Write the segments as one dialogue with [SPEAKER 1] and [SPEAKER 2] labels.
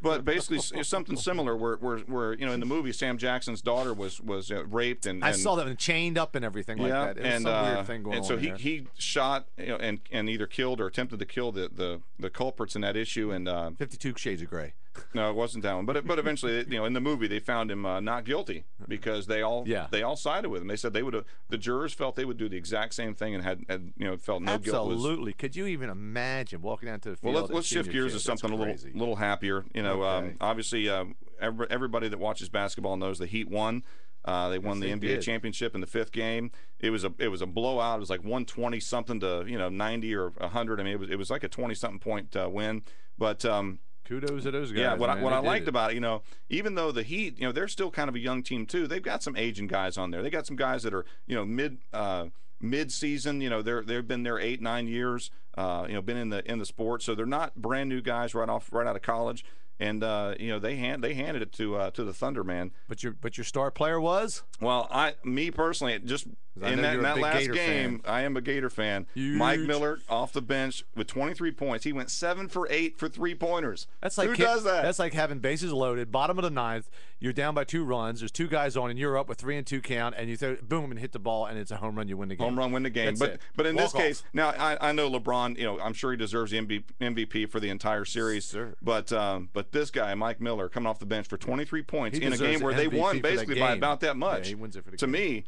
[SPEAKER 1] but basically s- it's something similar where, where, where you know in the movie Sam Jackson's daughter was was uh, raped and,
[SPEAKER 2] I
[SPEAKER 1] and-
[SPEAKER 2] saw them chained up and everything like that. It was
[SPEAKER 1] and
[SPEAKER 2] some
[SPEAKER 1] uh,
[SPEAKER 2] weird thing going
[SPEAKER 1] and so
[SPEAKER 2] on
[SPEAKER 1] he
[SPEAKER 2] there.
[SPEAKER 1] he shot you know, and and either killed or attempted to kill the the, the culprits in that issue. And uh,
[SPEAKER 2] Fifty-two Shades of Grey.
[SPEAKER 1] no, it wasn't that one. But but eventually, you know, in the movie, they found him uh, not guilty because they all
[SPEAKER 2] Yeah.
[SPEAKER 1] they all sided with him. They said they would have the jurors felt they would do the exact same thing and had, had you know felt no guilt was
[SPEAKER 2] Absolutely. Could you even imagine walking out to the
[SPEAKER 1] well,
[SPEAKER 2] field?
[SPEAKER 1] let's,
[SPEAKER 2] as
[SPEAKER 1] let's shift
[SPEAKER 2] junior
[SPEAKER 1] gears
[SPEAKER 2] kid?
[SPEAKER 1] to
[SPEAKER 2] That's
[SPEAKER 1] something a little
[SPEAKER 2] crazy.
[SPEAKER 1] little happier. You know,
[SPEAKER 2] Okay.
[SPEAKER 1] um, obviously, um, every, everybody that watches basketball knows the Heat won. Uh, they won
[SPEAKER 2] Yes,
[SPEAKER 1] the
[SPEAKER 2] they
[SPEAKER 1] NBA
[SPEAKER 2] did.
[SPEAKER 1] championship in the fifth game. It was a it was a blowout. It was like 120 something to you know 90 or 100. I mean, it was it was like a 20 something point uh, win. But um,
[SPEAKER 2] Kudos to those guys.
[SPEAKER 1] yeah, what I,
[SPEAKER 2] man.
[SPEAKER 1] what
[SPEAKER 2] They
[SPEAKER 1] I
[SPEAKER 2] did
[SPEAKER 1] liked
[SPEAKER 2] it.
[SPEAKER 1] about it, you know, even though the Heat, you know, they're still kind of a young team too. They've got some aging guys on there. They got some guys that are, you know, mid uh, mid season. You know, they're they've been there eight nine years. Uh, you know, been in the in the sport, so they're not brand new guys right off right out of college. And uh, you know, they hand they handed it to uh, to the Thunder man.
[SPEAKER 2] But your but your star player was
[SPEAKER 1] Well, I me personally, it just
[SPEAKER 2] 'Cause I
[SPEAKER 1] in
[SPEAKER 2] know
[SPEAKER 1] that,
[SPEAKER 2] you're
[SPEAKER 1] in
[SPEAKER 2] a
[SPEAKER 1] that
[SPEAKER 2] big
[SPEAKER 1] last
[SPEAKER 2] Gator
[SPEAKER 1] game, I am a Gator fan. Mike
[SPEAKER 2] Huge.
[SPEAKER 1] Miller off the bench with 23 points. He went seven for eight for three pointers.
[SPEAKER 2] that's like
[SPEAKER 1] who
[SPEAKER 2] kick-
[SPEAKER 1] does that?
[SPEAKER 2] That's like having bases loaded, bottom of the ninth. You're down by two runs. There's two guys on, and you're up with three and two count, and you throw boom and hit the ball, and it's a home run. You win the game.
[SPEAKER 1] home run win the game.
[SPEAKER 2] That's
[SPEAKER 1] but
[SPEAKER 2] it.
[SPEAKER 1] but in this
[SPEAKER 2] Walk off.
[SPEAKER 1] case, now I, I know LeBron. You know, I'm sure he deserves the MB MVP for the entire series.
[SPEAKER 2] Sure.
[SPEAKER 1] But um, but this guy, Mike Miller, coming off the bench for 23 points
[SPEAKER 2] He
[SPEAKER 1] in a
[SPEAKER 2] deserves
[SPEAKER 1] game where
[SPEAKER 2] the
[SPEAKER 1] they won
[SPEAKER 2] MVP for that
[SPEAKER 1] basically by
[SPEAKER 2] game.
[SPEAKER 1] about that much.
[SPEAKER 2] Yeah, he wins it for the
[SPEAKER 1] to
[SPEAKER 2] game.
[SPEAKER 1] me,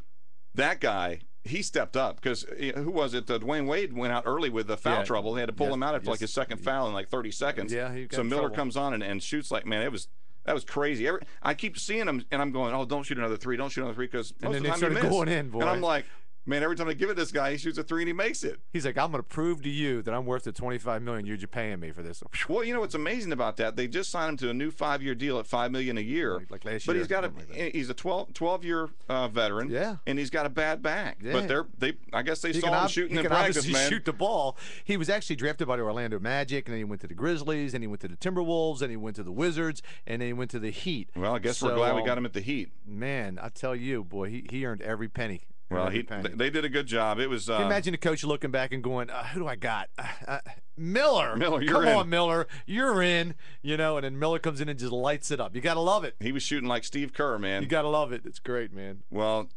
[SPEAKER 1] that guy. He stepped up because who was it? Uh, Dwayne Wade went out early with the foul
[SPEAKER 2] Yeah.
[SPEAKER 1] trouble. They had to pull
[SPEAKER 2] Yes,
[SPEAKER 1] him out after like
[SPEAKER 2] yes.
[SPEAKER 1] his second foul in like 30 seconds.
[SPEAKER 2] Yeah, he got
[SPEAKER 1] so
[SPEAKER 2] in
[SPEAKER 1] Miller
[SPEAKER 2] trouble.
[SPEAKER 1] comes on and, and shoots like man, it was that was crazy. Every, I keep seeing him and I'm going, oh, don't shoot another three, don't shoot another three because most
[SPEAKER 2] then
[SPEAKER 1] of
[SPEAKER 2] they
[SPEAKER 1] the time you
[SPEAKER 2] started
[SPEAKER 1] miss.
[SPEAKER 2] going in, boy.
[SPEAKER 1] And I'm like, man, every time I give it this guy, he shoots a three and he makes it.
[SPEAKER 2] He's like, I'm going to prove to you that I'm worth the 25 million you're paying me for this.
[SPEAKER 1] Well, you know what's amazing about that? They just signed him to a new five-year deal at five million a year.
[SPEAKER 2] Like- like last
[SPEAKER 1] but
[SPEAKER 2] year,
[SPEAKER 1] he's got a
[SPEAKER 2] something like
[SPEAKER 1] he's a 12, 12 year uh, veteran.
[SPEAKER 2] Yeah.
[SPEAKER 1] and he's got a bad back.
[SPEAKER 2] Yeah.
[SPEAKER 1] But they're they I guess they
[SPEAKER 2] He
[SPEAKER 1] saw
[SPEAKER 2] can,
[SPEAKER 1] him
[SPEAKER 2] ob-
[SPEAKER 1] shooting
[SPEAKER 2] he
[SPEAKER 1] in
[SPEAKER 2] can
[SPEAKER 1] practice,
[SPEAKER 2] obviously
[SPEAKER 1] man.
[SPEAKER 2] shoot the ball. He was actually drafted by the Orlando Magic, and then he went to the Grizzlies, and he went to the Timberwolves, and he went to the Wizards, and then he went to the Heat.
[SPEAKER 1] Well, I guess we're
[SPEAKER 2] So,
[SPEAKER 1] glad we
[SPEAKER 2] um,
[SPEAKER 1] got him at the Heat.
[SPEAKER 2] Man, I tell you, boy, he, he earned every penny. Earned
[SPEAKER 1] Well,
[SPEAKER 2] every
[SPEAKER 1] he
[SPEAKER 2] penny.
[SPEAKER 1] they, they did a good job. It was. Uh,
[SPEAKER 2] Can you imagine the coach looking back and going, uh, "Who do I got? Uh, uh, Miller.
[SPEAKER 1] Miller, you're
[SPEAKER 2] come
[SPEAKER 1] in."
[SPEAKER 2] on, Miller, you're in." You know, and then Miller comes in and just lights it up. You gotta love it.
[SPEAKER 1] he was shooting like Steve Kerr, man.
[SPEAKER 2] You gotta love it. It's great, man.
[SPEAKER 1] Well,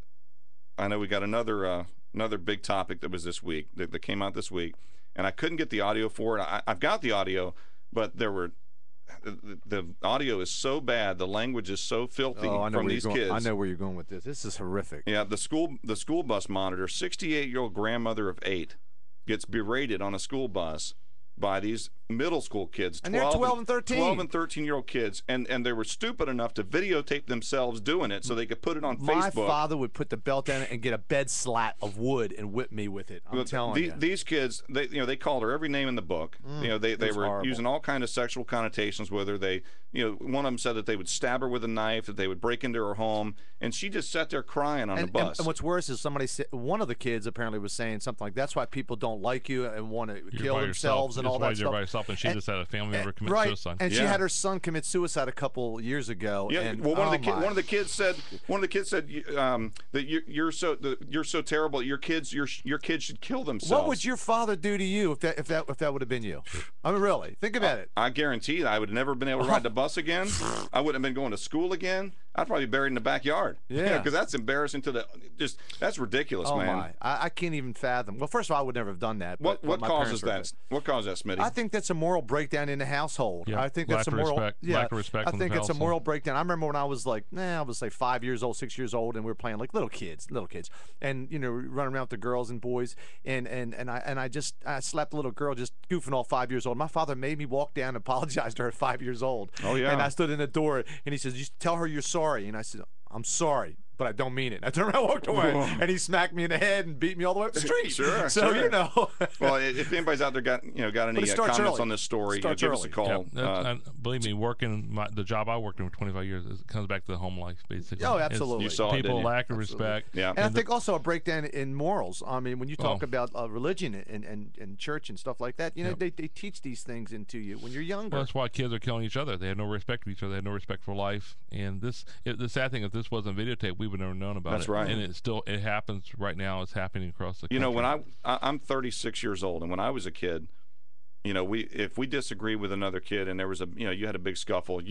[SPEAKER 1] I know we got another uh, another big topic that was this week that, that came out this week, and I couldn't get the audio for it. I, I've got the audio, but there were the, the audio is so bad, the language is so filthy
[SPEAKER 2] oh, I know
[SPEAKER 1] from
[SPEAKER 2] where
[SPEAKER 1] these
[SPEAKER 2] you're going.
[SPEAKER 1] kids.
[SPEAKER 2] I know where you're going with this. This is horrific.
[SPEAKER 1] Yeah, the school the school bus monitor, 68 year old grandmother of eight, gets berated on a school bus by these middle school kids,
[SPEAKER 2] And they're 12 and 13.
[SPEAKER 1] 12 and 13 year old kids, and and they were stupid enough to videotape themselves doing it so they could put it on
[SPEAKER 2] My
[SPEAKER 1] Facebook.
[SPEAKER 2] father would put the belt down and get a bed slat of wood and whip me with it. I'm
[SPEAKER 1] But
[SPEAKER 2] telling
[SPEAKER 1] the-
[SPEAKER 2] you.
[SPEAKER 1] These kids, they you know, they called her every name in the book. you know, they, they
[SPEAKER 2] was
[SPEAKER 1] were
[SPEAKER 2] horrible.
[SPEAKER 1] using all kind of sexual connotations with her. They, you know, one of them said that they would stab her with a knife, that they would break into her home, and she just sat there crying on
[SPEAKER 2] and,
[SPEAKER 1] the
[SPEAKER 2] and-
[SPEAKER 1] bus.
[SPEAKER 2] and what's worse is somebody said one of the kids apparently was saying something like that's why people don't like you and want to
[SPEAKER 3] You're
[SPEAKER 2] kill
[SPEAKER 3] by
[SPEAKER 2] themselves
[SPEAKER 3] yourself.
[SPEAKER 2] and
[SPEAKER 3] That's
[SPEAKER 2] all
[SPEAKER 3] why
[SPEAKER 2] that
[SPEAKER 3] You're
[SPEAKER 2] stuff.
[SPEAKER 3] by yourself, and she just had a family member commit
[SPEAKER 2] right,
[SPEAKER 3] suicide.
[SPEAKER 2] and she
[SPEAKER 1] Yeah.
[SPEAKER 2] had her son commit suicide a couple years ago.
[SPEAKER 1] yeah,
[SPEAKER 2] and,
[SPEAKER 1] well, one of the
[SPEAKER 2] oh
[SPEAKER 1] ki-
[SPEAKER 2] my.
[SPEAKER 1] one of the kids said one of the kids said you- um, that you, you're so that you're so terrible. Your kids your your kids should kill themselves.
[SPEAKER 2] What would your father do to you if that if that if that would have been you? I mean, really, think about it.
[SPEAKER 1] I guarantee that I would have never been able to ride the bus again. I wouldn't have been going to school again. I'd probably be buried in the backyard.
[SPEAKER 2] Yeah.
[SPEAKER 1] because that's embarrassing to the just that's ridiculous,
[SPEAKER 2] Oh
[SPEAKER 1] man.
[SPEAKER 2] my, I, I can't even fathom. Well, first of all, I would never have done that.
[SPEAKER 1] What
[SPEAKER 2] but- but
[SPEAKER 1] what
[SPEAKER 2] my
[SPEAKER 1] causes
[SPEAKER 2] parents
[SPEAKER 1] that?
[SPEAKER 2] were-
[SPEAKER 1] What caused that, Smitty?
[SPEAKER 2] I think that's a moral breakdown in the household.
[SPEAKER 3] Yeah,
[SPEAKER 2] I think
[SPEAKER 3] lack
[SPEAKER 2] that's a
[SPEAKER 3] of
[SPEAKER 2] moral.
[SPEAKER 3] respect-
[SPEAKER 2] yeah,
[SPEAKER 3] lack of respect
[SPEAKER 2] I
[SPEAKER 3] from the
[SPEAKER 2] think it's a
[SPEAKER 3] household.
[SPEAKER 2] moral breakdown. I remember when I was like, nah, I was like five years old, six years old, and we were playing like little kids, little kids, and you know, running around with the girls and boys, and and and I and I just I slapped a little girl just goofing off five years old. My father made me walk down and apologize to her at five years old.
[SPEAKER 1] Oh, yeah.
[SPEAKER 2] And I stood in the door, and he says, "You tell her you're sorry," and I said, "I'm sorry." But I don't mean it. And I turned around, and walked away, and he smacked me in the head and beat me all the way up the street.
[SPEAKER 1] Sure,
[SPEAKER 2] So
[SPEAKER 1] sure.
[SPEAKER 2] you know.
[SPEAKER 1] well, i- if anybody's out there got you know got
[SPEAKER 2] it
[SPEAKER 1] any uh,
[SPEAKER 2] starts
[SPEAKER 1] comments
[SPEAKER 2] early.
[SPEAKER 1] on this story, you know,
[SPEAKER 2] Starts
[SPEAKER 1] give us a
[SPEAKER 2] early.
[SPEAKER 1] call.
[SPEAKER 3] Yeah,
[SPEAKER 1] Uh,
[SPEAKER 3] that- I- believe me, working my, the job I worked in for 25 years, it comes back to the home life, basically.
[SPEAKER 2] Oh,
[SPEAKER 3] It's
[SPEAKER 2] absolutely. You
[SPEAKER 1] saw it,
[SPEAKER 3] people
[SPEAKER 1] didn't you?
[SPEAKER 3] lack of respect.
[SPEAKER 1] yeah.
[SPEAKER 2] And, I think also a breakdown in morals. I mean, when you talk
[SPEAKER 3] Oh.
[SPEAKER 2] about uh, religion and, and, and church and stuff like that, you know, they, they teach these things into you when you're younger.
[SPEAKER 3] Well, that's why kids are killing each other. They have no respect for each other. They have no respect for life. And this, it, the sad thing, if this wasn't videotaped, we would never known about
[SPEAKER 1] That's
[SPEAKER 3] it.
[SPEAKER 1] right.
[SPEAKER 3] And it still, it happens right now. It's happening across the.
[SPEAKER 1] you know,
[SPEAKER 3] country.
[SPEAKER 1] when I, I I'm 36 years old, and when I was a kid, you know, we if we disagreed with another kid, and there was a you know you had a big scuffle,